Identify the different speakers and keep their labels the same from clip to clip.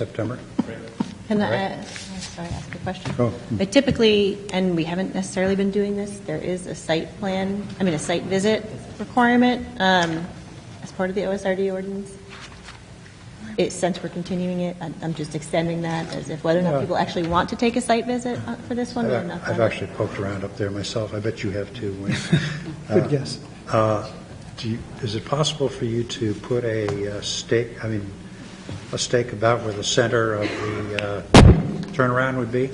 Speaker 1: September.
Speaker 2: Can I,
Speaker 1: Right.
Speaker 2: I'm sorry, ask a question?
Speaker 1: Go.
Speaker 2: But typically, and we haven't necessarily been doing this, there is a site plan, I mean, a site visit requirement um, as part of the OSRD ordinance. It, since we're continuing it, I'm- I'm just extending that as if whether or
Speaker 1: Yeah.
Speaker 2: not people actually want to take a site visit uh, for this one or
Speaker 1: I've
Speaker 2: not.
Speaker 1: I've actually poked around up there myself. I bet you have too, Wayne.
Speaker 3: Good guess.
Speaker 1: Uh, do you- Is it possible for you to put a uh, stake, I mean, a stake about where the center of the uh, turnaround would be?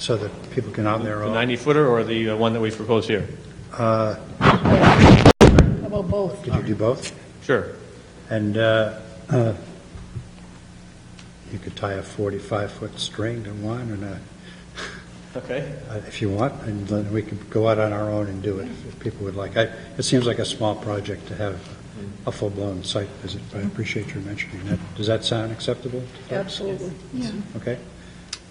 Speaker 1: So that people can on their
Speaker 4: The
Speaker 1: own?
Speaker 4: 90-footer or the uh, one that we proposed here?
Speaker 1: uh, Could you do both?
Speaker 4: Sure.
Speaker 1: And uh, uh, you could tie a 45-foot string to one and a
Speaker 4: Okay.
Speaker 1: Uh, if you want, and then we could go out on our own and do it if- if people would like. I- It seems like a small project to have a full-blown site visit, but I appreciate your mentioning that. Does that sound acceptable? to folks?
Speaker 5: Absolutely.
Speaker 6: Yeah.
Speaker 1: Okay?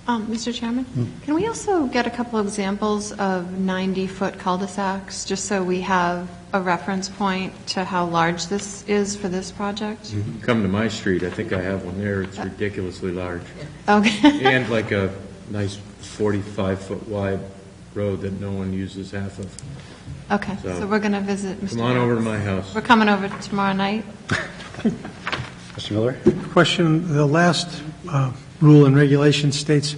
Speaker 6: Um, Mr. Chairman,
Speaker 7: Hmm.
Speaker 6: can we also get a couple examples of 90-foot cul-de-sacs, just so we have a reference point to how large this is for this project?
Speaker 7: Come to my street, I think I have one there, it's ridiculously large.
Speaker 6: Okay.
Speaker 7: And like a nice 45-foot wide road that no one uses half of.
Speaker 6: Okay,
Speaker 7: So-
Speaker 6: so we're going to visit. Mr.
Speaker 7: Come on over to my
Speaker 6: Jones.
Speaker 7: house.
Speaker 6: We're coming over tomorrow night?
Speaker 1: Mr. Miller?
Speaker 3: Question, the last uh, rule and regulation states,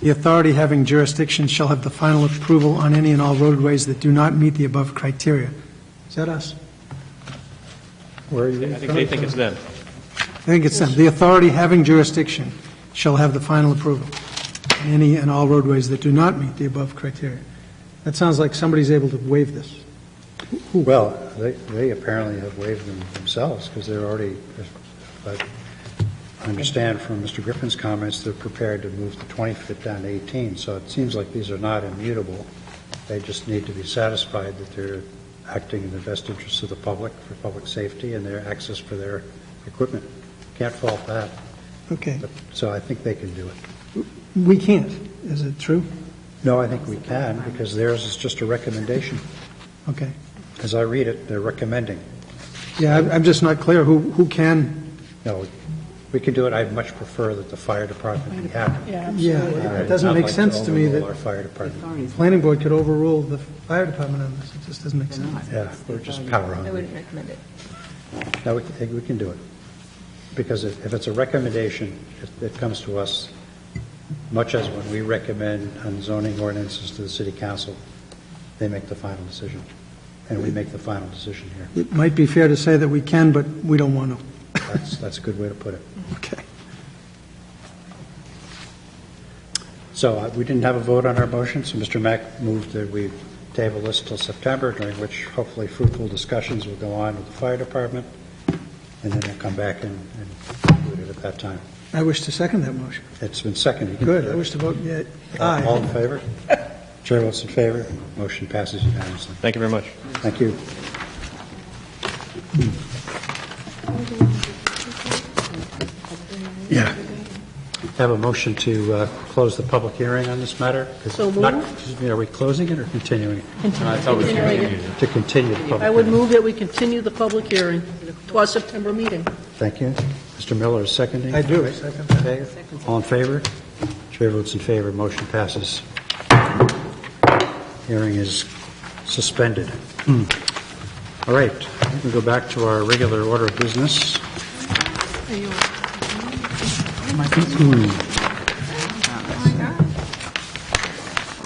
Speaker 3: "The authority having jurisdiction shall have the final approval on any and all roadways that do not meet the above criteria." Is that us?
Speaker 1: Where are
Speaker 4: I
Speaker 1: you
Speaker 4: think they think it's them.
Speaker 3: I think it's them. "The authority having jurisdiction shall have the final approval on any and all roadways that do not meet the above criteria." That sounds like somebody's able to waive this.
Speaker 1: Well, they they apparently have waived them themselves because they're already, but I understand from Mr. Griffin's comments, they're prepared to move the 20 foot down to 18, so it seems like these are not immutable. They just need to be satisfied that they're acting in the best interests of the public, for public safety and their access for their equipment. Can't fault that,
Speaker 3: Okay.
Speaker 1: but- so I think they can do it.
Speaker 3: We can't. Is it true?
Speaker 1: No, I think we can because theirs is just a recommendation.
Speaker 3: Okay.
Speaker 1: As I read it, they're recommending.
Speaker 3: Yeah, I'm- I'm just not clear who who can,
Speaker 1: No, we can do it. I'd much prefer that the fire department be happy. Uh,
Speaker 5: Yeah,
Speaker 3: yeah,
Speaker 5: absolutely.
Speaker 3: it doesn't make sense to me that...
Speaker 1: Our fire department,
Speaker 3: The planning board could overrule the fire department on this, it just doesn't make sense.
Speaker 1: yeah, we're just power
Speaker 2: I
Speaker 1: hungry.
Speaker 2: wouldn't recommend it.
Speaker 1: No, we can, we can do it. Because if if it's a recommendation, it- it comes to us, much as when we recommend on zoning ordinances to the city council, they make the final decision, and we make the final decision here.
Speaker 3: It might be fair to say that we can, but we don't want to.
Speaker 1: That's, that's a good way to put it.
Speaker 3: Okay.
Speaker 1: So uh, we didn't have a vote on our motion, so Mr. Mack moved that we table this till September, during which hopefully fruitful discussions will go on with the fire department, and then we'll come back and and do it at that time.
Speaker 3: I wish to second that motion.
Speaker 1: It's been seconded.
Speaker 3: Good, I wish to vote yea-
Speaker 1: All
Speaker 3: aye.
Speaker 1: in favor? Chair votes in favor. Motion passes unanimously.
Speaker 4: Thank you very much.
Speaker 1: Thank you. Yeah. Have a motion to uh, close the public hearing on this matter? 'Cause
Speaker 5: So
Speaker 1: not-
Speaker 5: moved.
Speaker 1: excuse me, Are we closing it or continuing?
Speaker 5: Continue.
Speaker 1: To continue the public
Speaker 5: I would
Speaker 1: hearing.
Speaker 5: move that we continue the public hearing to our September meeting.
Speaker 1: Thank you. Mr. Miller is seconding.
Speaker 3: I do, I second that.
Speaker 1: Okay. All in favor? Chair votes in favor. Motion passes. Hearing is suspended. All right, we can go back to our regular order of business.
Speaker 6: Are you-
Speaker 1: Hmm.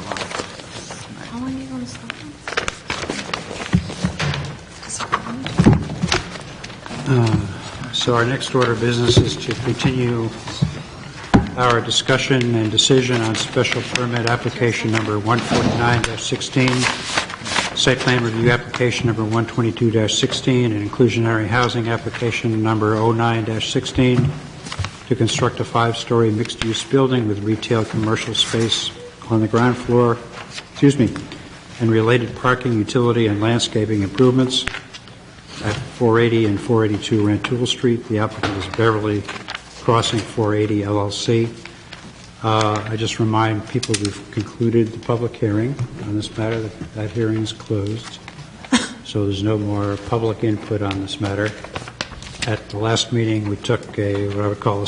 Speaker 6: How long are you going to stop?
Speaker 1: So our next order of business is to continue our discussion and decision on special permit application number 149-16, site plan review application number 122-16, and inclusionary housing application number 09-16 to construct a five-story mixed-use building with retail commercial space on the ground floor, excuse me, and related parking, utility, and landscaping improvements at 480 and 482 Rantoul Street. The applicant is Beverly Crossing 480 LLC. Uh, I just remind people we've concluded the public hearing on this matter. That that hearing is closed, so there's no more public input on this matter. At the last meeting, we took a, what I would call a